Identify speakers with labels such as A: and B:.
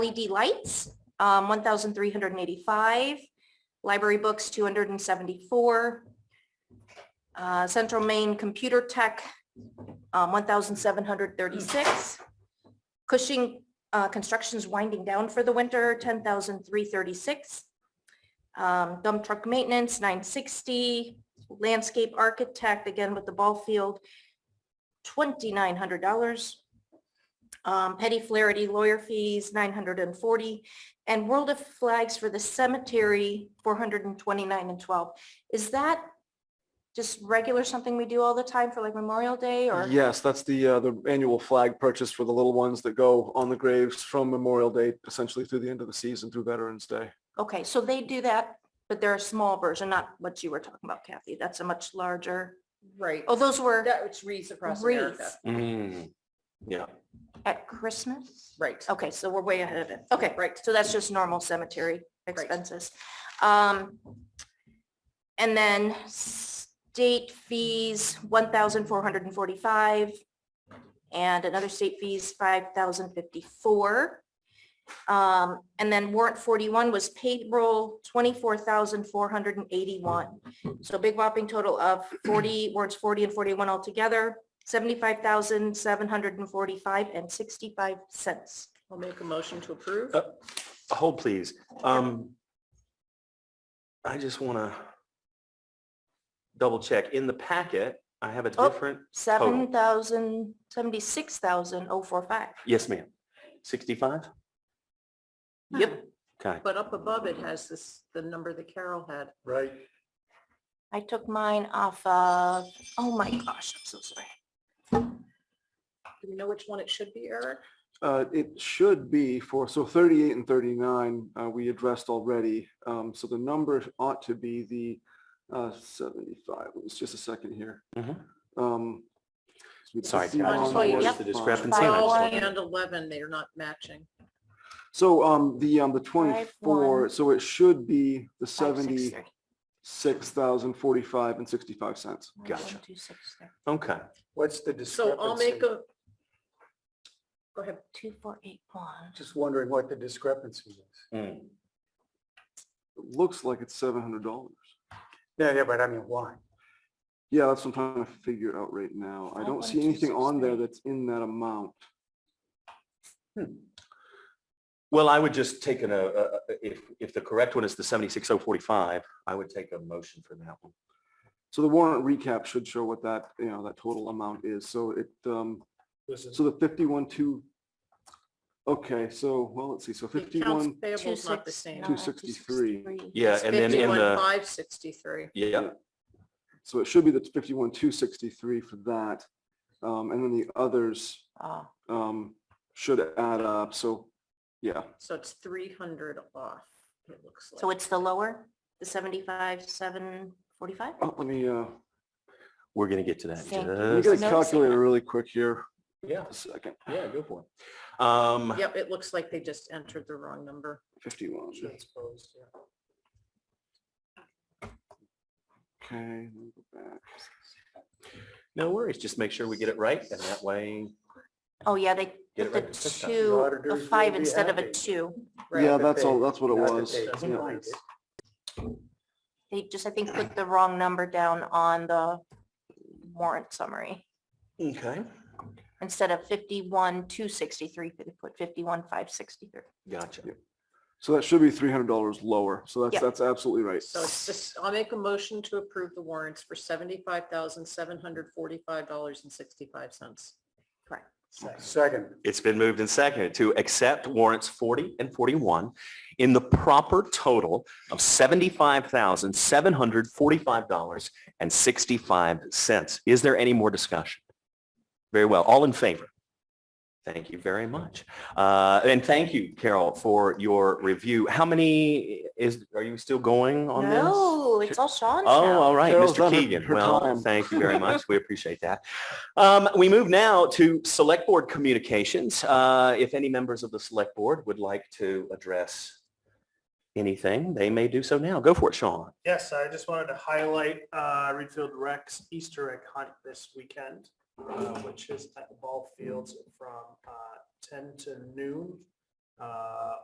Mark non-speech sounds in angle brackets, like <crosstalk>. A: LED lights, um, one thousand three hundred and eighty-five. Library books, two hundred and seventy-four. Uh, Central Maine Computer Tech, um, one thousand seven hundred thirty-six. Cushing, uh, construction's winding down for the winter, ten thousand three thirty-six. Um, dump truck maintenance, nine sixty. Landscape architect, again with the ball field, twenty-nine hundred dollars. Um, Petty Flaherty lawyer fees, nine hundred and forty, and World of Flags for the cemetery, four hundred and twenty-nine and twelve. Is that just regular, something we do all the time for like Memorial Day or?
B: Yes, that's the, uh, the annual flag purchase for the little ones that go on the graves from Memorial Day essentially through the end of the season through Veterans Day.
A: Okay, so they do that, but they're a small version, not what you were talking about, Kathy. That's a much larger,
C: Right.
A: oh, those were
C: That which reads across America.
A: wreaths
D: Mm.
B: yeah.
A: at Christmas?
C: Right.
A: Okay, so we're way ahead of it. Okay, right. So that's just normal cemetery
C: Right.
A: expenses. Um, and then state fees, one thousand four hundred and forty-five. And another state fees, five thousand fifty-four. Um, and then warrant forty-one was payroll, twenty-four thousand four hundred and eighty-one. So a big whopping total of forty, warrants forty and forty-one altogether, seventy-five thousand seven hundred and forty-five and sixty-five cents.
C: I'll make a motion to approve.
D: Uh, Hold, please. Um, I just want to double check. In the packet, I have a
A: Oh.
D: different,
A: Seven thousand, seventy-six thousand oh four five.
D: yes, ma'am, 65?
C: Yep.
D: Okay.
C: But up above it has this, the number that Carol had.
B: Right.
A: I took mine off of, oh my gosh, I'm so sorry.
C: Do we know which one it should be, Eric?
B: Uh, it should be for, so thirty-eight and thirty-nine, uh, we addressed already. Um, so the number ought to be the, uh, seventy-five. It's just a second here.
D: Mhm.
B: Um, we
D: Sorry,
B: see
D: Kat, I
B: on
D: just wanted to
A: Yep.
D: notice the discrepancy. and I
C: Twelve
D: just wanted-
C: and eleven, they are not matching.
B: So, um, the, um, the
A: Five,
B: twenty-four,
A: one.
B: so it should be the
A: Five, six,
B: seventy.
A: three.
B: six thousand forty-five and sixty-five cents.
A: One,
D: Gotcha.
A: two, six, three.
D: Okay,
E: What's the
C: So I'll make
E: discrepancy?
C: a. Go ahead.
A: Two, four, eight, one.
E: Just wondering what the discrepancy is.
D: Mm.
B: It Looks like it's seven hundred dollars.
E: Yeah, yeah, but I mean, why?
B: Yeah, that's what I'm trying to figure out right now. I
A: Five, one,
B: don't see
A: two,
B: anything
A: six,
B: on there
A: three.
B: that's in that amount.
D: well, I would just take an, uh, uh, if, if the correct one is the 76045, I would take a motion for that one.
B: So the warrant recap should show what that, you know, that total amount is. So it, um,
E: This is
B: so the fifty-one, two. Okay, so, well, let's see, so
C: The accounts
B: fifty-one,
C: payable is not the
A: 26,
C: same.
A: nine,
B: 263.
A: 263.
D: Yeah, and then in the,
C: Five sixty-three.
D: yeah,
B: so it should be the fifty-one, two sixty-three for that. Um, and then the others,
A: Oh,
B: um, should add up. So, yeah,
C: So it's three hundred off, it looks like.
A: So it's the lower, the seventy-five, seven, forty-five?
B: Oh, let me, uh,
D: we're going to get to that. in
A: Thank you.
B: let me get a
D: just-
A: Noticing that.
B: calculator really quick here.
D: Yeah,
B: A second.
D: yeah, go for it. Um,
C: Yep, it looks like they just entered the wrong number.
B: Fifty-one.
E: transposed, yeah.
B: Okay, let me go back.
D: No worries, just make sure we get it right and that way
A: Oh, yeah, they
D: Get it
A: put the
D: right the first time. The
A: two, a
E: auditors will
A: five
E: be
A: instead of a
E: happy.
A: two.
C: Right.
B: Yeah,
E: Not that
B: that's all,
E: they-
B: that's what it
E: not that
B: was.
E: they
B: yeah.
C: doesn't
E: find it.
A: They just, I think, put the wrong number down on the warrant summary.
D: Okay,
A: Instead of fifty-one, two sixty-three, they put fifty-one, five sixty-three.
D: gotcha.
B: So that should be three hundred dollars lower. So
A: Yeah.
B: that's, that's absolutely right.
C: So it's just, I'll make a motion to approve the warrants for seventy-five thousand, seven hundred forty-five dollars and sixty-five cents.
A: Correct.
E: Second,
D: It's been moved and seconded to accept warrants 40 and 41 in the proper total of $75,745.65. Is there any more discussion? Very well, all in favor? Thank you very much. Uh, And thank you, Carol, for your review. How many is, are you still going on this?
A: No, it's all Sean's
D: Oh,
A: now.
D: all right,
B: Carol's
D: Mr.
B: done her-
D: Keegan.
B: her
D: Well,
B: time.
D: thank you
B: <laughs>
D: very much. We appreciate that. Um, We move now to Select Board Communications. Uh, If any members of the Select Board would like to address anything, they may do so now. Go for it, Sean.
F: Yes, I just wanted to highlight uh, Reedfield Rec's Easter egg hunt this weekend, uh, which is at the ball fields from uh, 10 to noon. uh,